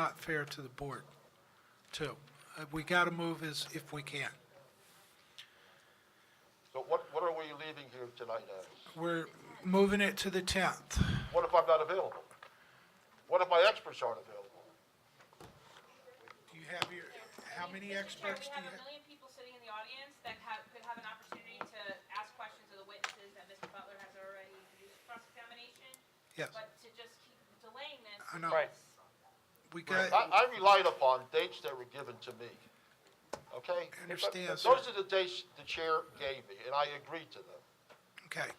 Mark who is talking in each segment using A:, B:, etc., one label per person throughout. A: not fair to the board, too. Uh, We got to move as, if we can.
B: So what, what are we leaving here tonight as?
A: We're moving it to the 10th.
B: What if I'm not available? What if my experts aren't available?
A: Do you have your, how many experts do
C: Chair,
A: you
C: we have
A: have?
C: a million people sitting in the audience that have, could have an opportunity to ask questions of the witnesses that Mr. Butler has already used cross-examination.
A: Yes.
C: But to just keep delaying this.
A: I know.
C: is-
A: We got,
B: I, I relied upon dates that were given to me, okay?
A: I understand, sir.
B: Those are the dates the chair gave me, and I agreed to them.
A: okay.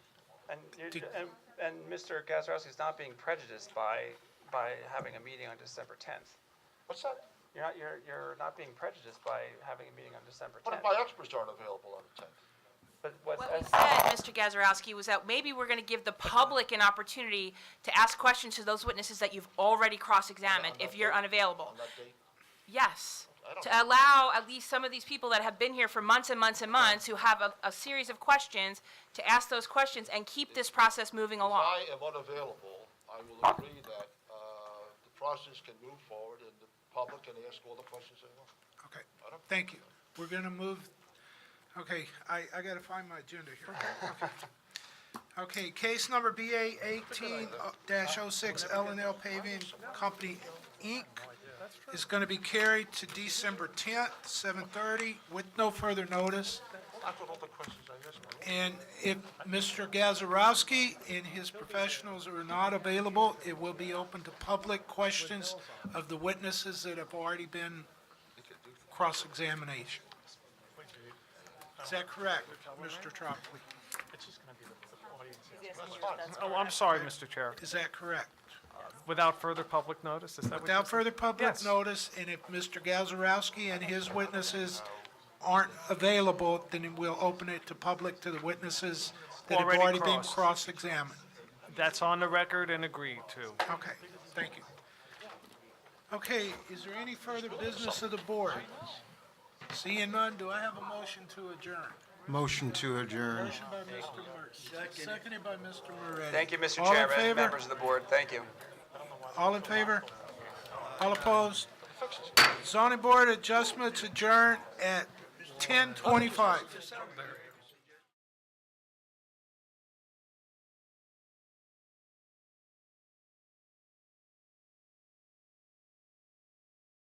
D: And, you-
A: Did-
D: and, and Mr. Gazarovski's not being prejudiced by, by having a meeting on December 10th.
B: What's that?
D: You're not, you're, you're not being prejudiced by having a meeting on December
B: What if
D: 10th.
B: my experts aren't available on the 10th?
D: But what's,
C: What we said, Mr. Gazarovski, was that maybe we're going to give the public an opportunity to ask questions to those witnesses that you've already cross-examined if you're unavailable.
B: On that date?
C: Yes.
B: I don't-
C: To allow at least some of these people that have been here for months and months and months who have a, a series of questions to ask those questions and keep this process moving
B: If
C: along.
B: I am unavailable, I will agree that, uh, the process can move forward and the public can ask all the questions they want.
A: Okay, thank you. We're going to move, okay, I, I got to find my agenda here. Okay. Okay, case number BA uh, 18-06, L and L Paving Company, Inc. is going to be carried to December 10th, 7:30, with no further notice.
B: That's what all the questions I asked.
A: And if Mr. Gazarovski and his professionals are not available, it will be open to public questions of the witnesses that have already been cross-examination. Is that correct, Mr. Tropoli?
E: Oh, I'm sorry, Mr. Chair.
A: Is that correct?
E: Without further public notice, is that what you
A: Without
E: said?
A: further public
E: Yes.
A: notice, and if Mr. Gazarovski and his witnesses aren't available, then we'll open it to public to the witnesses that have
E: Already
A: already been
E: crossed.
A: cross-examined.
E: That's on the record and agreed to.
A: Okay, thank you. Okay, is there any further business of the board? Seeing none, do I have a motion to adjourn?
F: Motion to adjourn.
A: Motion by Mr. Mertz, seconded by Mr. Moretti.
D: thank you, Mr.
A: All in
D: Chairman,
A: favor?
D: members of the board, thank you.
A: All in favor? All opposed? Zoning Board adjustments adjourned at 10:25.